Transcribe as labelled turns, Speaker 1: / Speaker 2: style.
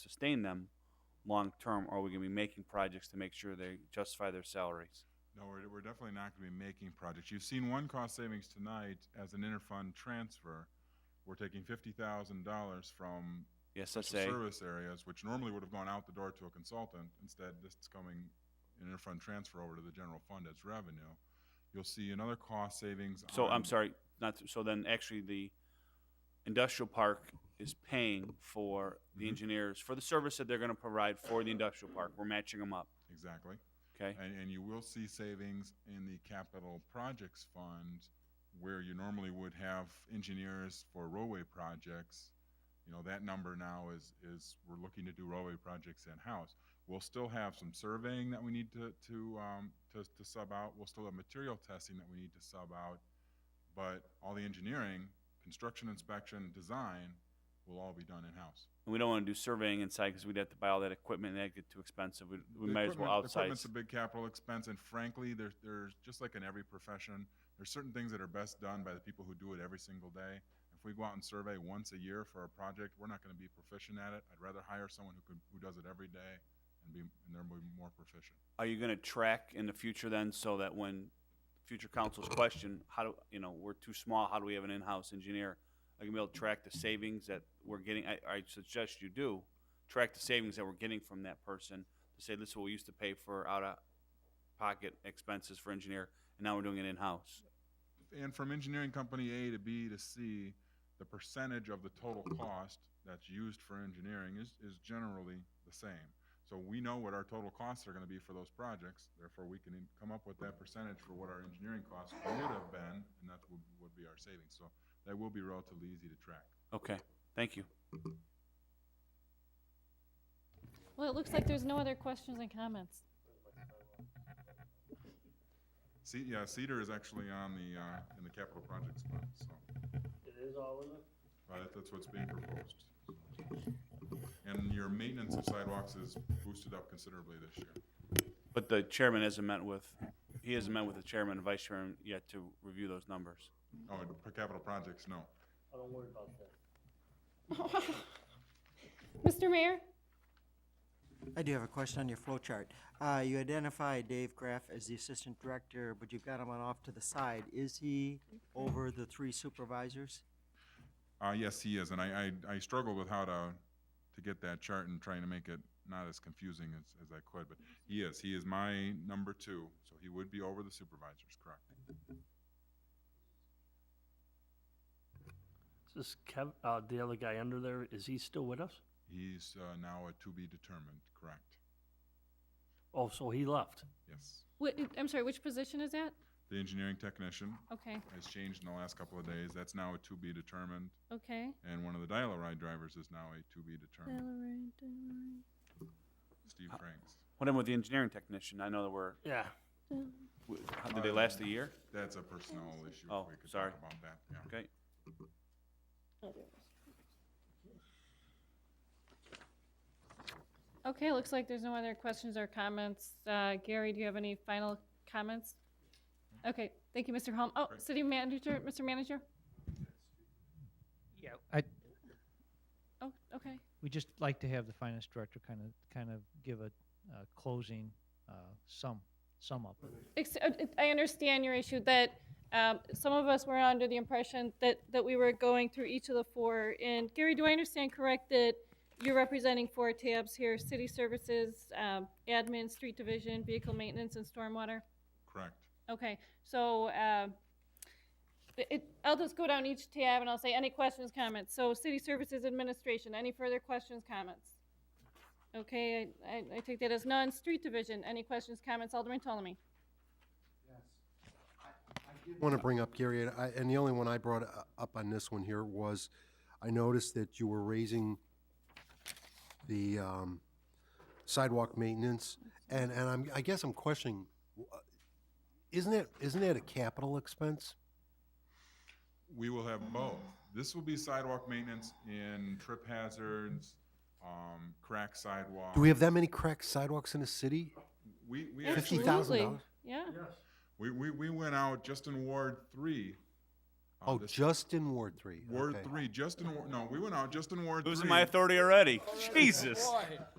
Speaker 1: sustain them long-term, or are we gonna be making projects to make sure they justify their salaries?
Speaker 2: No, we're, we're definitely not going to be making projects. You've seen one cost savings tonight as an interfund transfer. We're taking fifty thousand dollars from
Speaker 1: The
Speaker 2: special
Speaker 1: SSA,
Speaker 2: service areas, which normally would have gone out the door to a consultant. Instead, this is coming in interfund transfer over to the general fund as revenue. You'll see another cost savings.
Speaker 1: so I'm
Speaker 2: on-
Speaker 1: sorry, not, so then actually the industrial park is paying for the
Speaker 2: Mhm.
Speaker 1: engineers, for the service that they're gonna provide for the industrial park, we're matching them up,
Speaker 2: Exactly.
Speaker 1: okay?
Speaker 2: And, and you will see savings in the capital projects fund where you normally would have engineers for roadway projects. You know, that number now is, is, we're looking to do roadway projects in-house. We'll still have some surveying that we need to, to, um, to, to sub out. We'll still have material testing that we need to sub out. But all the engineering, construction inspection, design will all be done in-house.
Speaker 1: And we don't wanna do surveying inside, cause we'd have to buy all that equipment, and that'd get too expensive, we, we
Speaker 2: The
Speaker 1: might as well
Speaker 2: equipment-
Speaker 1: outside.
Speaker 2: Equipment's a big capital expense, and frankly, there's, there's, just like in every profession, there's certain things that are best done by the people who do it every single day. If we go out and survey once a year for a project, we're not gonna be proficient at it. I'd rather hire someone who could, who does it every day and be, and they're more proficient.
Speaker 1: are you gonna track in the future then, so that when future councils question, how do, you know, we're too small, how do we have an in-house engineer? Are you gonna be able to track the savings that we're getting, I, I suggest you do, track the savings that we're getting from that person, to say, this is what we used to pay for out-of-pocket expenses for engineer, and now we're doing it in-house.
Speaker 2: And from engineering company A to B to C, the percentage of the total cost that's used for engineering is, is generally the same. So we know what our total costs are gonna be for those projects, therefore we can in- come up with that percentage for what our engineering costs would have been, and that would, would be our savings. So that will be relatively easy to track.
Speaker 1: Okay, thank you.
Speaker 3: Well, it looks like there's no other questions and comments.
Speaker 2: C, yeah, Cedar is actually on the, uh, in the capital projects fund, so,
Speaker 4: It is all in it?
Speaker 2: uh, that- that's what's being proposed. And your maintenance of sidewalks is boosted up considerably this year.
Speaker 1: But the chairman hasn't met with, he hasn't met with the chairman and vice chairman yet to review those numbers.
Speaker 2: Oh, and per capital projects, no.
Speaker 4: I don't worry about that.
Speaker 3: Mr. Mayor?
Speaker 5: I do have a question on your flow chart. Uh, you identify Dave Graff as the assistant director, but you've got him on off to the side. Is he over the three supervisors?
Speaker 2: Uh, yes, he is, and I, I, I struggled with how to, to get that chart and trying to make it not as confusing as, as I could, but he is, he is my number two, so he would be over the supervisors, correct?
Speaker 4: Is this Kev, uh, the other guy under there, is he still with us?
Speaker 2: He's, uh, now a to be determined, correct?
Speaker 4: Oh, so he left.
Speaker 2: Yes.
Speaker 3: What, I'm sorry, which position is that?
Speaker 2: The engineering technician
Speaker 3: Okay,
Speaker 2: has changed in the last couple of days, that's now a to be determined,
Speaker 3: okay.
Speaker 2: and one of the dial-a-ride drivers is now a to be determined, Steve Franks.
Speaker 1: What happened with the engineering technician? I know that we're,
Speaker 4: Yeah.
Speaker 1: w- how- did they last a year?
Speaker 2: That's a personnel issue,
Speaker 1: Oh,
Speaker 2: if we could
Speaker 1: sorry.
Speaker 2: talk about that, yeah.
Speaker 1: Okay.
Speaker 3: Okay, looks like there's no other questions or comments. Uh, Gary, do you have any final comments? Okay, thank you, Mr. Holm. Oh, City Manager, Mr. Manager?
Speaker 6: Yeah, I,
Speaker 3: Oh, okay.
Speaker 6: we just like to have the finance director kind of, kind of give a, uh closing, uh, sum, sum up.
Speaker 3: Ex- uh, it- I understand your issue that um, some of us were under the impression that, that we were going through each of the four. And Gary, do I understand correct that you're representing four tabs here, city services, um, admin, street division, vehicle maintenance, and stormwater?
Speaker 2: Correct.
Speaker 3: Okay, so um, it- it, I'll just go down each tab and I'll say any questions, comments. So city services administration, any further questions, comments? Okay, I- I, I take that as none. Street division, any questions, comments? Alderman Ptolemy?
Speaker 7: want to bring up, Gary, and I, and the only one I brought u- up on this one here was, I noticed that you were raising the, um, sidewalk maintenance, and, and I'm, I guess I'm questioning, w- uh, isn't that, isn't that a capital expense?
Speaker 2: We will have both. This will be sidewalk maintenance in trip hazards, um, crack sidewalk.
Speaker 7: Do we have that many cracked sidewalks in the city?
Speaker 2: We, we
Speaker 7: Fifty
Speaker 2: actually,
Speaker 7: thousand
Speaker 3: Absolutely.
Speaker 7: dollars?
Speaker 3: Yeah,
Speaker 2: we, we, we went out just in Ward three, uh, uh,
Speaker 7: Oh,
Speaker 2: this-
Speaker 7: just in Ward Three.
Speaker 2: Ward
Speaker 7: okay.
Speaker 2: three, just in, Wa- no, we went out just in Ward three.
Speaker 1: Losing my authority already. Jesus.